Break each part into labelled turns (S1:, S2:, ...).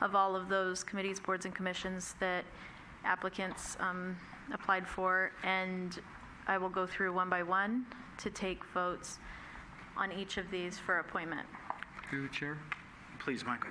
S1: of all of those committees, boards, and commissions that applicants um, applied for, and I will go through one by one to take votes on each of these for appointment.
S2: Through the chair,
S3: Please, Michael.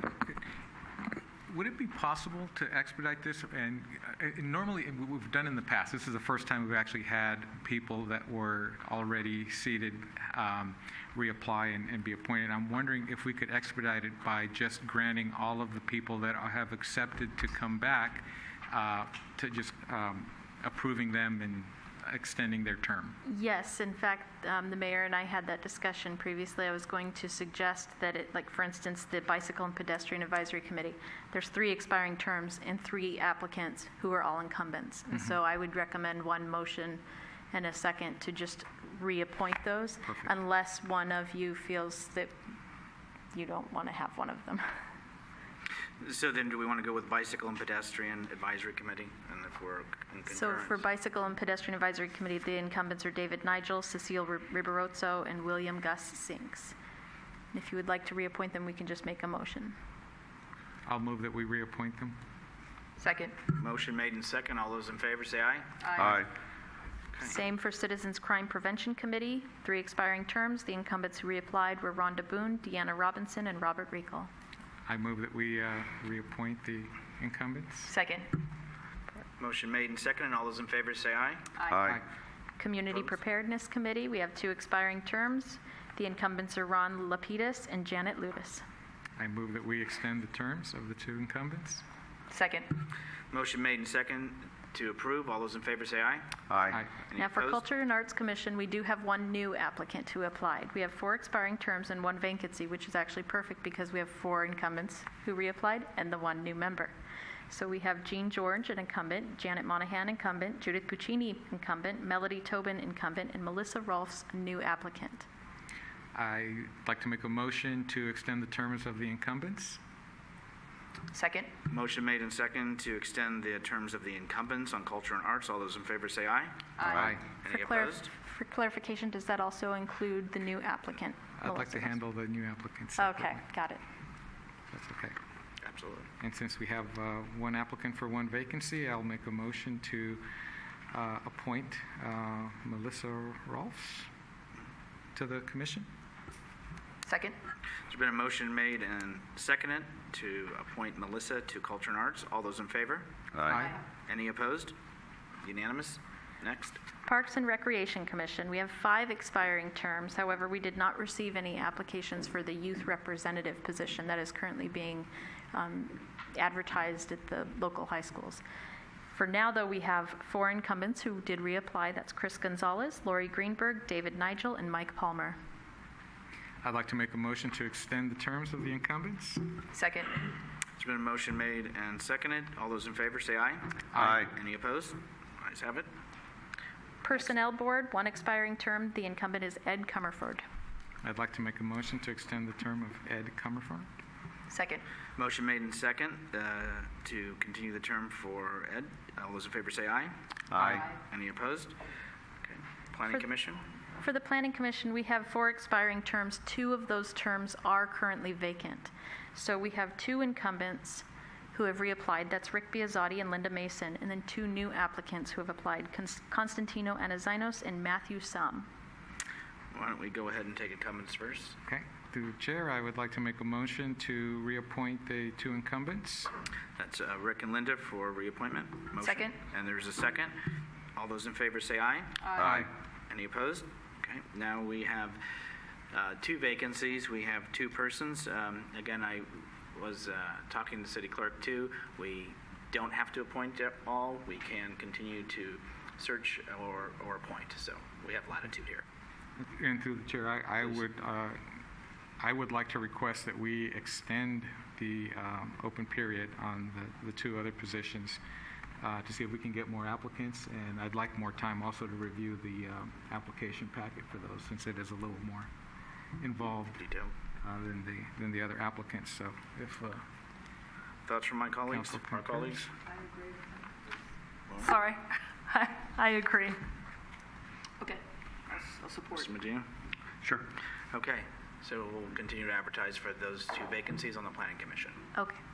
S2: would it be possible to expedite this? And uh, and normally, and we- we've done in the past, this is the first time we've actually had people that were already seated um, reapply and- and be appointed. I'm wondering if we could expedite it by just granting all of the people that are- have accepted to come back, uh, to just um, approving them and extending their term.
S1: Yes, in fact, um, the mayor and I had that discussion previously. I was going to suggest that it, like, for instance, the Bicycle and Pedestrian Advisory Committee, there's three expiring terms and three applicants who are all incumbents. And so I would recommend one motion and a second to just reappoint those,
S2: Perfect.
S1: unless one of you feels that you don't want to have one of them.
S3: So then, do we want to go with Bicycle and Pedestrian Advisory Committee? And if we're in
S1: So for
S3: concurrence?
S1: Bicycle and Pedestrian Advisory Committee, the incumbents are David Nigel, Cecile Ri- Ribarozzo, and William Gus Sinks. And If you would like to reappoint them, we can just make a motion.
S2: I'll move that we reappoint them.
S4: Second.
S3: Motion made and second. All those in favor, say aye.
S5: Aye.
S1: Same for Citizens Crime Prevention Committee, three expiring terms. The incumbents who reapplied were Rhonda Boone, Deanna Robinson, and Robert Riegel.
S2: I move that we uh, reappoint the incumbents.
S4: Second.
S3: Motion made and second. And all those in favor, say aye.
S5: Aye.
S1: Community Preparedness Committee, we have two expiring terms. The incumbents are Ron Lapidus and Janet Ludis.
S2: I move that we extend the terms of the two incumbents.
S4: Second.
S3: Motion made and second to approve. All those in favor, say aye.
S5: Aye.
S3: Any
S1: Now, for
S3: opposed?
S1: Culture and Arts Commission, we do have one new applicant who applied. We have four expiring terms and one vacancy, which is actually perfect because we have four incumbents who reapplied and the one new member. So we have Jean George, an incumbent, Janet Monahan, incumbent, Judith Puccini, incumbent, Melody Tobin, incumbent, and Melissa Rolfs, new applicant.
S2: I'd like to make a motion to extend the terms of the incumbents.
S4: Second.
S3: Motion made and second to extend the terms of the incumbents on Culture and Arts. All those in favor, say aye.
S5: Aye.
S1: For
S3: Any
S1: clar-
S3: opposed?
S1: For clarification, does that also include the new applicant?
S2: I'd like
S1: Melissa
S2: to
S1: Rolfs?
S2: handle the new applicants.
S1: Okay,
S2: separately.
S1: got it.
S2: That's okay.
S3: Absolutely.
S2: And since we have uh, one applicant for one vacancy, I'll make a motion to uh, appoint uh, Melissa Rolfs to the commission.
S4: Second.
S3: There's been a motion made and seconded to appoint Melissa to Culture and Arts. All those in favor?
S5: Aye.
S3: Any opposed? Unanimous? Next.
S1: Parks and Recreation Commission, we have five expiring terms. However, we did not receive any applications for the youth representative position that is currently being um, advertised at the local high schools. For now, though, we have four incumbents who did reapply. That's Chris Gonzalez, Lori Greenberg, David Nigel, and Mike Palmer.
S2: I'd like to make a motion to extend the terms of the incumbents.
S4: Second.
S3: There's been a motion made and seconded. All those in favor, say aye.
S5: Aye.
S3: Any opposed? Ayes have it.
S1: Personnel Board, one expiring term. The incumbent is Ed Comerford.
S2: I'd like to make a motion to extend the term of Ed Comerford.
S4: Second.
S3: Motion made and second uh, to continue the term for Ed. All those in favor, say aye.
S5: Aye.
S3: Any opposed? Okay. Planning
S1: For-
S3: Commission?
S1: For the Planning Commission, we have four expiring terms. Two of those terms are currently vacant. So we have two incumbents who have reapplied. That's Rick Biazotti and Linda Mason, and then two new applicants who have applied, Cons- Constantino Anazinos and Matthew Sum.
S3: Why don't we go ahead and take incumbents first?
S2: Okay, through the chair, I would like to make a motion to reappoint the two incumbents.
S3: That's uh, Rick and Linda for reappointment. Motion.
S4: Second.
S3: And there's a second. All those in favor, say aye.
S5: Aye.
S3: Any opposed? Okay, now we have uh, two vacancies, we have two persons. Um, Again, I was uh, talking to City Clerk, too. We don't have to appoint at all, we can continue to search or or appoint, so we have latitude here.
S2: And through the chair, I, I would, uh, I would like to request that we extend the um, open period on the, the two other positions uh, to see if we can get more applicants, and I'd like more time also to review the um, application packet for those, since it is a little more involved
S3: Detail.
S2: uh, than the, than the other applicants, so if uh,
S3: Thoughts from my colleagues,
S2: council
S3: our
S2: concurs.
S3: colleagues?
S1: Sorry, I agree.
S4: Okay. I'll support.
S3: Mr. Medina?
S5: Sure.
S3: Okay, so we'll continue to advertise for those two vacancies on the Planning Commission.
S1: Okay.